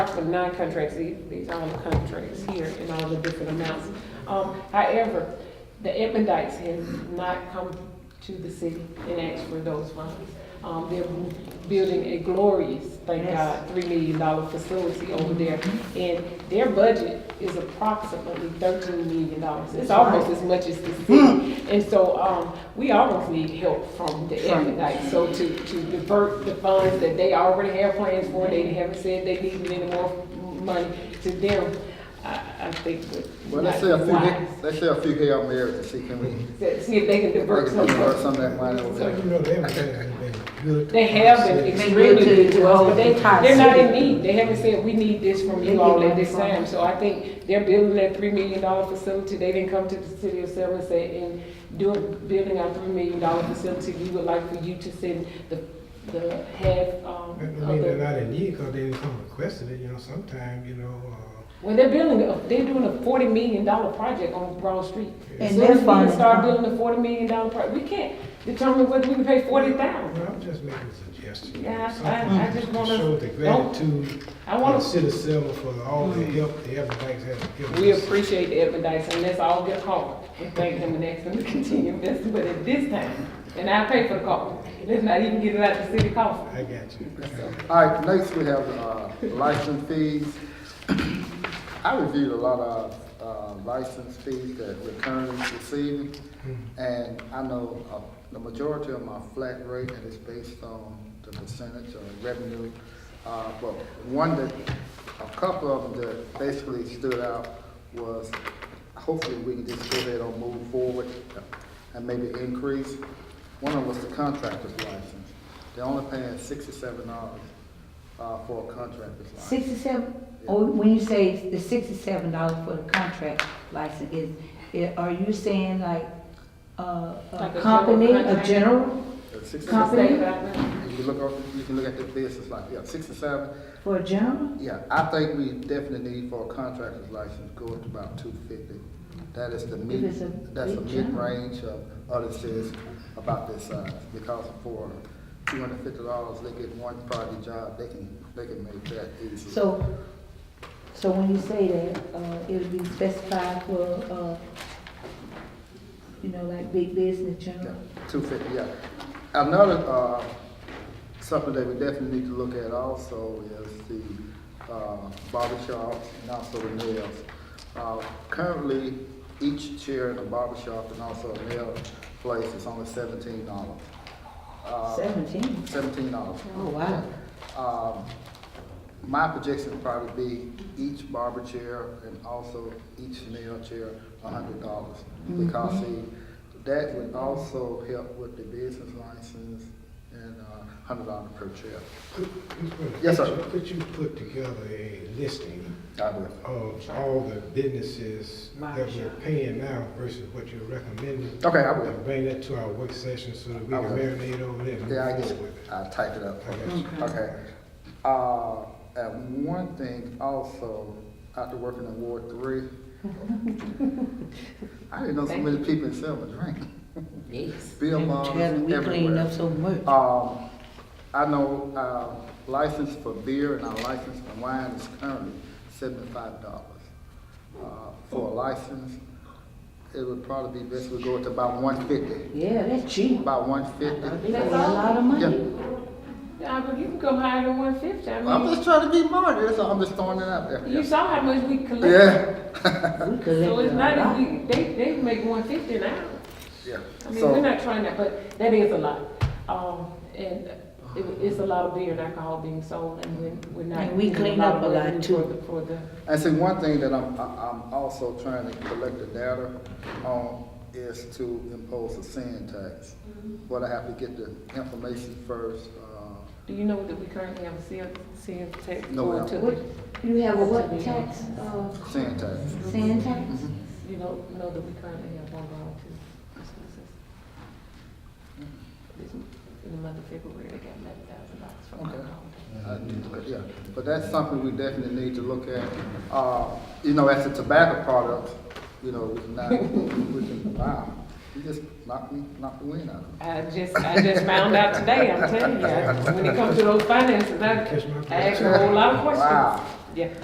contracts with non-contracts, The- these are all the contracts here and all the different amounts. Um, however, the Edmondites have not come to the city and asked for those funds. Um, they're building a glorious, thank Yes. God, three million dollar facility over there. And their budget is approximately thirteen million dollars. It's almost as much as the city. And so, um, we almost need help from the Sure. Edmondites. So to, to divert the funds that they already have plans for, they haven't said they need any more money to them, I, I think would Well, let's not say a be few, wise. let's say a few here on there and see can we, To See if they can divert can we work some. some of that money over You there? know, they haven't had anything good. They have been They extremely good to good to us, but they, the entire they're not in city. need. They haven't said, we need this from They you all need at this that from time. us. So I think they're building that three million dollar facility. They didn't come to the city of Selma and say, and doing, building our three million dollar facility, we would like for you to send the, the half, um, of I mean, the they're not in need because they didn't come requesting it, you know, sometime, you know, uh, Well, they're building, a- they're doing a forty million dollar project on Broad Street. And As soon they're as we can funding start it. building a forty million dollar project, we can't determine whether we can pay forty thousand. well, I'm just making a suggestion. you know, Yeah, I- I- something I just wanna- To show the Don't- gratitude I to the want city of Selma for all the help the Everbanks have to, given us. we appreciate the Edmondites, and let's all get called and thank them and ask them to continue investing, but at this time, and I pay for the call, let's not even get it out the city coffers. I got you. All right, next we have, uh, license fees. I reviewed a lot of, uh, license fees that we're currently receiving. And I know, uh, the majority of my flat rate, and it's based on the percentage of revenue. Uh, but one that, a couple of them that basically stood out was, hopefully we can just go ahead and move forward and maybe increase. One of them was the contractor's license. They're only paying sixty-seven dollars, uh, for a contractor's license. Sixty-seven, oh, when you say the sixty-seven dollars for the contract license, is, i- are you saying like, uh, Like a a company, general a contract? general, Uh, 67 Company? If you look up, you can look at the business like, yeah, six or seven, for a general? yeah, I think we definitely need for a contractor's license, go up to about two fifty. That is the If mid, it's a that's a big job. mid-range of other cities about this size, because for two hundred fifty dollars, they get one project job, they can, they can make that easy. So, so when you say that, uh, it'll be specified for, uh, you know, like big business general? Two fifty, yeah. Another, uh, something that we definitely need to look at also is the, uh, barber shops and also the nails. Uh, currently, each chair in a barber shop and also a nail place is only seventeen dollars. Uh, Seventeen? Seventeen dollars. Oh, wow. Um, my projection would probably be each barber chair and also each nail chair, a hundred dollars. Because see, that would also help with the business license and a hundred dollar per chair. Could- could- Yes, sir. could you- Could you put together a listing I would. of all the businesses that we're paying now versus what you're recommending? Okay, I will. And bring that to our work session so that we I can will. marinate over there and Yeah, I move guess, forward with it. I'll type it up. I got you. Okay. Uh, and one thing also, after working in Ward Three, I didn't know so many people in Selma drank. Yes. Bill Maher We cleaned everywhere. up so much. Um, I know, uh, license for beer and our license for wine is currently seventy-five dollars. Uh, for a license, it would probably be best we go to about one fifty, Yeah, that's cheap. about one They fifty. pay a lot of money. Nah, but you can go higher than one fifty, I I'm mean, just trying to be modest, that's all. I'm just throwing it out there. you saw how much we collected. Yeah. We collected So it's a not, lot. as we- they, they make one fifty an hour. Yeah. I mean, we're So, not trying that, but that is a lot. Um, and it, it's a lot of beer and alcohol being sold and we're, we're not. And we getting clean lot up of a lot, revenue too. For the, for the, and see, one thing that I'm, I- I'm also trying to collect the data on is to impose a sin tax. But I have to get the information first, uh, do you know that we currently have a sales, sales tax? No, going ma'am. to the- What, you have a what tax, uh, Sin tax. sand tax? You know, know that we currently have one going to the school system? This, in the month of February, they got eleven thousand dollars from Okay. alcohol. Uh, Yeah, but that's something we definitely need to look at. Uh, you know, as a tobacco product, you know, we can, not- we can, wow, you just knocked me, knocked the wind out of me. I just, I just found out today, I'm telling you, I- when it comes to those finances, I, Catch my I ask a whole lot of questions. Wow, Yeah.